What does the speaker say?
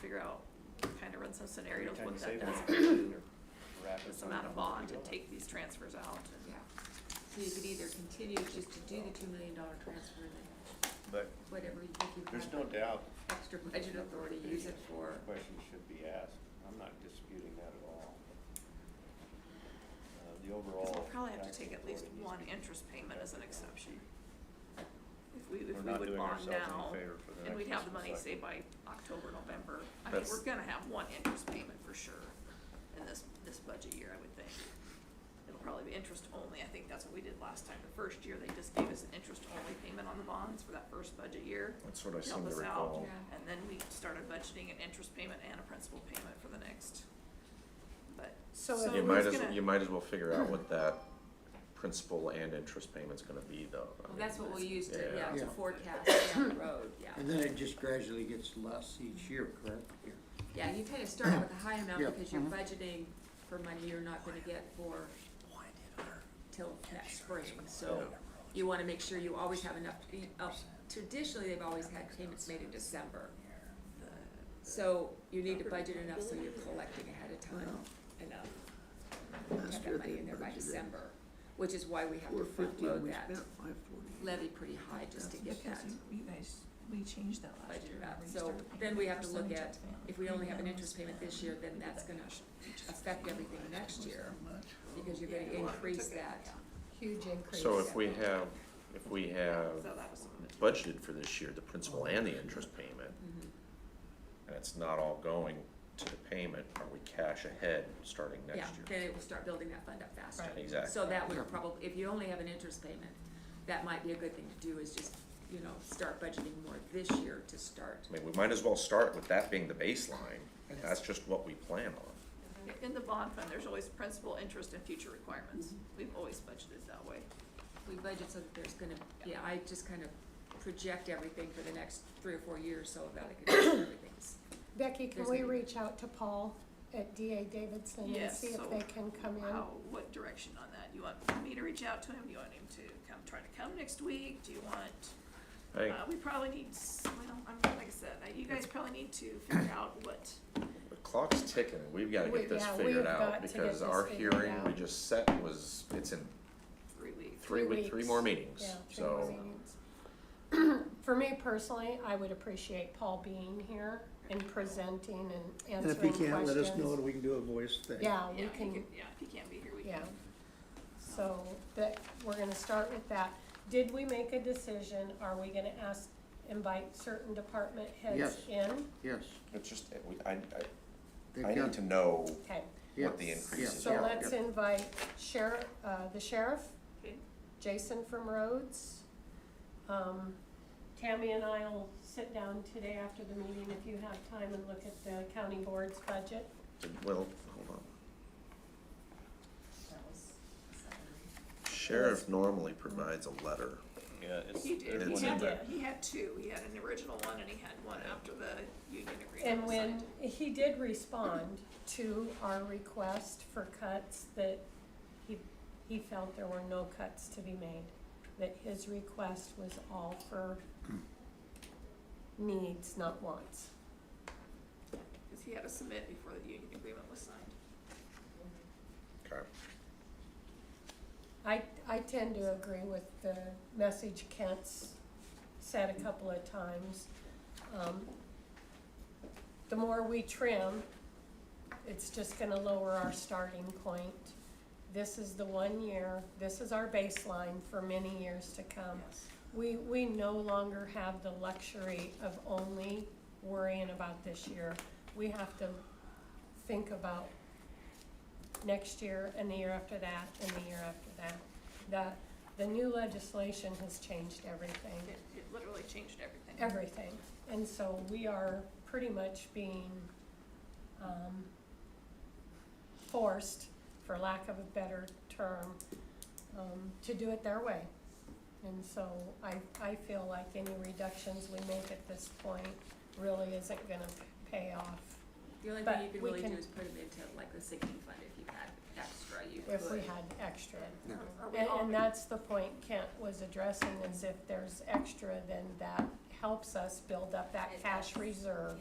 figure out, kind of run some scenarios Every time what you that save does one, to you're wrapping this something amount of up. bond and take these transfers out. and- Yeah, so you could either continue just to do the two million dollar transfer and then But whatever you think you have. there's no doubt. Extra budget authority, use it for, Question should be asked. I'm not disputing that at all. Uh, The overall. Cause we'll probably have to tax take at least authority needs one to be- interest payment as an exception. If we, We're if we not would doing bond ourselves any now, favor for the and next we'd have the fiscal money, say cycle. by October, November, I mean, That's- we're gonna have one interest payment for sure in this, this budget year, I would think. It'll probably be interest only, I think that's what we did last time, the first year, they just gave us an interest only payment on the bonds for that first budget year. That's what I to help seem to us out. recall. Yeah. And then we started budgeting an interest payment and a principal payment for the next, but, so who's So if- gonna? You might as, you might as well figure out what that principal and interest payment's gonna be though. I well, mean, that's what we'll use to, yeah. yeah, to Yeah. forecast down the road, yeah. And then it just gradually gets less each year, correct? Yeah, you kind of start with a high amount Yeah, because you're mhm. budgeting for money you're not gonna get for till next spring, so you wanna make sure you always have enough, to be- up- traditionally, they've always had payments made in December. So you need to budget enough so you're collecting ahead of time enough. Have that money in there by December, which is why we have to front load that levy pretty high just to get that. You guys, we changed that last budgeted year. out. We So started paying then we have to look percentage at, of family. if we only have an interest payment this year, then that's gonna affect everything next year. Because you're gonna increase that. Huge increase. So if we have, if we have So that was some of it. budgeted for this year, the principal and the interest payment, Mm-hmm. and it's not all going to the payment, are we cash ahead starting Yeah, next year? then it will start building that fund up faster. Right. Exactly. So that would probably, if you only have an interest payment, that might be a good thing to do is just, you know, start budgeting more this year to start. I mean, we might as well start with that being the baseline, that's just what we plan on. In the bond fund, there's always principal, interest, and future requirements. Mm-hmm. We've always budgeted that way. We budget so that there's gonna, yeah, I just kind of project everything for the next three or four years so that I can, everything's Becky, can There's we gonna be- reach out to Paul at DA Davidson and Yes, see so if they can come in? How, what direction on that? You want me to reach out to him? You want him to come, try to come next week? Do you want, I think uh, we probably need, s- well, I'm, like I said, I- you guys probably need to figure out what, the clock's ticking, we've gotta We- get this yeah, we figured have out, got to get because this our figured hearing we out. just set was, it's in three weeks. three Three week, three weeks. more meetings, Yeah, three so. more meetings. For me personally, I would appreciate Paul being here and presenting and And answering if questions. he can't, let us know and we can do a voice thing. Yeah, Yeah, Uh, we you can, could- Yeah, if he can't be here, we yeah. can. So that, we're gonna start with that. Did we make a decision? Are we gonna ask, invite certain department heads Yes. in? Yes. It's just, it- we- I, I, they've I got- need to know Okay, yeah, what the increases so Yeah. are. let's invite sheriff, uh, the sheriff, Okay. Jason from Rhodes. Um, Tammy and I will sit down today after the meeting if you have time and look at the county board's budget. Well, hold on. Sheriff normally provides a letter. Yeah, it's. He did, there's It's he one had, in in there. a- he had two. He had an original one and he had one after the union agreement was And when signed. he did respond to our request for cuts, that he, he felt there were no cuts to be made, that his request was all for needs, not wants. Cause he had to submit before the union agreement was signed. Okay. I, I tend to agree with the message Kent's said a couple of times. Um, The more we trim, it's just gonna lower our starting point. This is the one year, this is our baseline for many years to come. Yes. We, we no longer have the luxury of only worrying about this year. We have to think about next year and the year after that and the year after that. The, the new legislation has changed everything, It, it literally changed everything. everything. And so we are pretty much being, um, forced, for lack of a better term, um, to do it their way. And so I, I feel like any reductions we make at this point really isn't gonna pay off. The only But thing you could we really do can- is put them into like the sinking fund if you had extra, you could. If we had extra. Are- are we And, all- and that's the point Kent was addressing, is if there's extra, then that helps us build up that cash reserve.